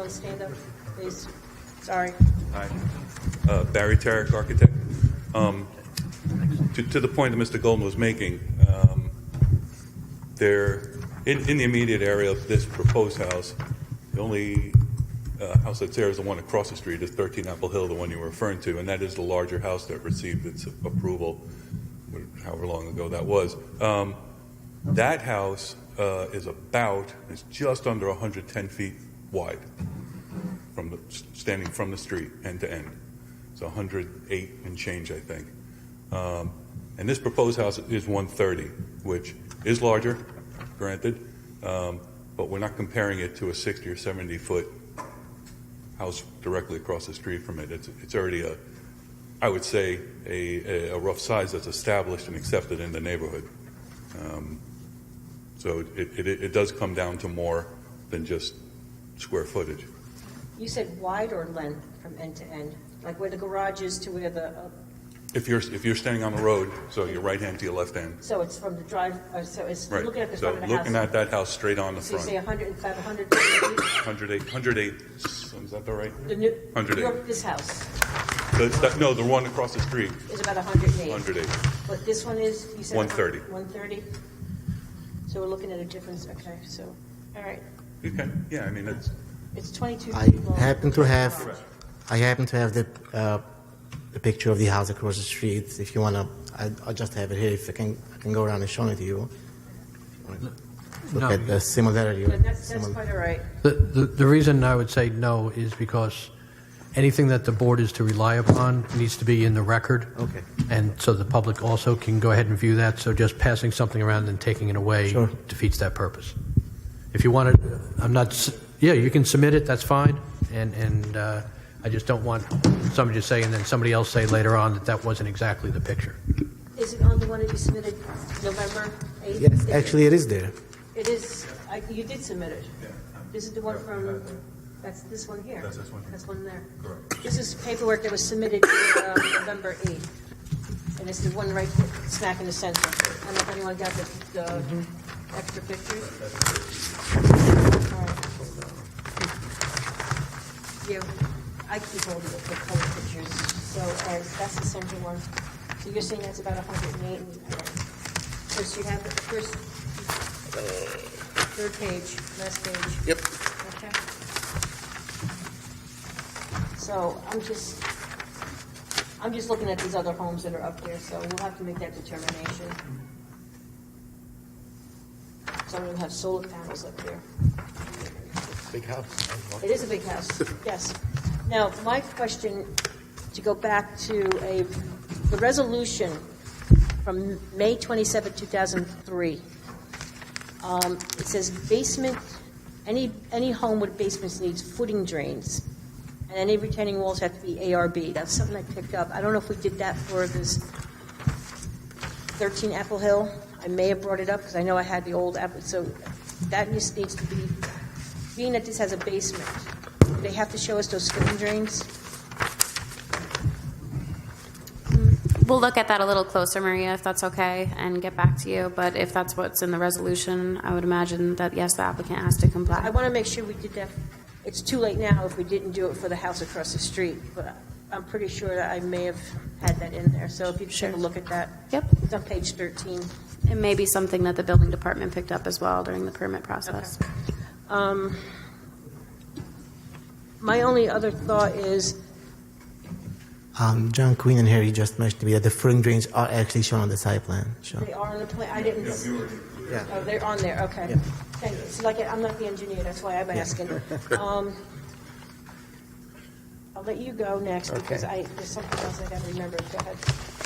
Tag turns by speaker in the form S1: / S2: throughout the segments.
S1: please stand up, please. Sorry.
S2: Hi, Uh, Barry Tarrick, architect. Um, To to the point that Mr. Goldman was making, um, there, in in the immediate area of this proposed house, the only uh, house that's there is the one across the street, is 13 Apple Hill, the one you were referring to, and that is the larger house that received its approval, however long ago that was. Um, That house uh, is about, is just under 110 feet wide from the, standing from the street end to end. It's 108 and change, I think. Um, and this proposed house is 130, which is larger, granted, um, but we're not comparing it to a 60 or 70 foot house directly across the street from it. It's, it's already a, I would say, a, a rough size that's established and accepted in the neighborhood. Um, so it, it, it does come down to more than just square footage.
S1: You said wide or length from end to end? Like where the garage is to where the, uh,
S2: If you're, if you're standing on the road, so your right hand to your left hand,
S1: so it's from the drive, uh, so it's
S2: right?
S1: looking at the
S2: So
S1: front of the house?
S2: looking at that house straight on the
S1: So you
S2: front,
S1: say 100, about 100,
S2: 108, 108, is that the right?
S1: the new,
S2: 108.
S1: your- this house
S2: The- that- No, the one across the street,
S1: is about 108.
S2: 108.
S1: But this one is, you said?
S2: 130.
S1: 130? So we're looking at a difference, okay, so, all right.
S2: You can, yeah, I mean, it's,
S1: It's 22
S3: I
S1: feet long.
S3: happen to have, I happen to have the, uh, the picture of the house across the street. If you wanna, I, I just have it here. If I can, I can go around and show it to you. Look
S4: No.
S3: at the similarity.
S1: Yeah, That's, that's
S3: simil-
S1: quite all right.
S4: The, the, the reason I would say no is because anything that the board is to rely upon needs to be in the record.
S3: Okay.
S4: And so the public also can go ahead and view that, so just passing something around and taking it away
S3: Sure.
S4: defeats that purpose. If you want to, I'm not, s- yeah, you can submit it, that's fine, and, and uh, I just don't want somebody to say, and then somebody else say later on that that wasn't exactly the picture.
S1: Is it on the one that you submitted November 8th?
S3: Yes, actually, it is there.
S1: It is, I, you did submit it. This is the one from, that's this one here.
S2: That's this one here.
S1: That's there.
S2: Correct.
S1: This is paperwork that was submitted uh, November 8th. And it's the one right smack in the center. I don't know if anyone got the, the extra pictures? All right. Yeah, I keep all the the color pictures, so uh, that's the center one. So you're saying that's about 108, and uh, first you have the first, third page, last page. Yep. Okay. So I'm just, I'm just looking at these other homes that are up there, so we'll have to make that determination. Some of them have solar panels up there.
S3: Big house.
S1: It is a big house, yes. Now, my question, to go back to a, the resolution from May 27, 2003. Um, It says basement, any, any home with basements needs footing drains, and any retaining walls have to be ARB. That's something I picked up. I don't know if we did that for this 13 Apple Hill. I may have brought it up because I know I had the old Apple, so that just needs to be, being that this has a basement, do they have to show us those footing drains?
S5: We'll look at that a little closer, Maria, if that's okay, and get back to you. But if that's what's in the resolution, I would imagine that, yes, the applicant has to
S1: I
S5: comply.
S1: want to make sure we did that. It's too late now if we didn't do it for the house across the street, but I'm pretty sure that I may have had that in there. So if you just have a
S5: Sure.
S1: look at that.
S5: Yep.
S1: It's on page 13.
S5: It may be something that the building department picked up as well during the permit process.
S1: Um, My only other thought is,
S3: Um, John Queen and Harry just mentioned to me that the footing drains are actually shown on the site plan. Sure.
S1: they are on the plan, I didn't,
S3: Yeah.
S1: oh, they're on there, okay.
S3: Yeah.
S1: Thank you. It's like, I'm not the engineer, that's why I'm asking. Um, I'll let you go next because I, there's something else I gotta remember. Go ahead.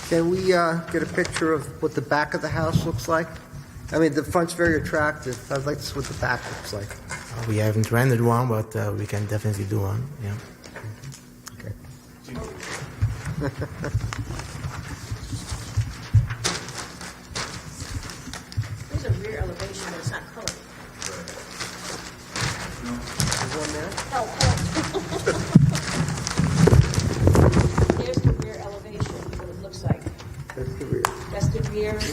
S6: Can we uh, get a picture of what the back of the house looks like? I mean, the front's very attractive. I'd like to see what the back looks like.
S3: We haven't rendered one, but uh, we can definitely do one. Yeah.
S1: There's a rear elevation, but it's not colored.
S6: One there?
S1: No, colored.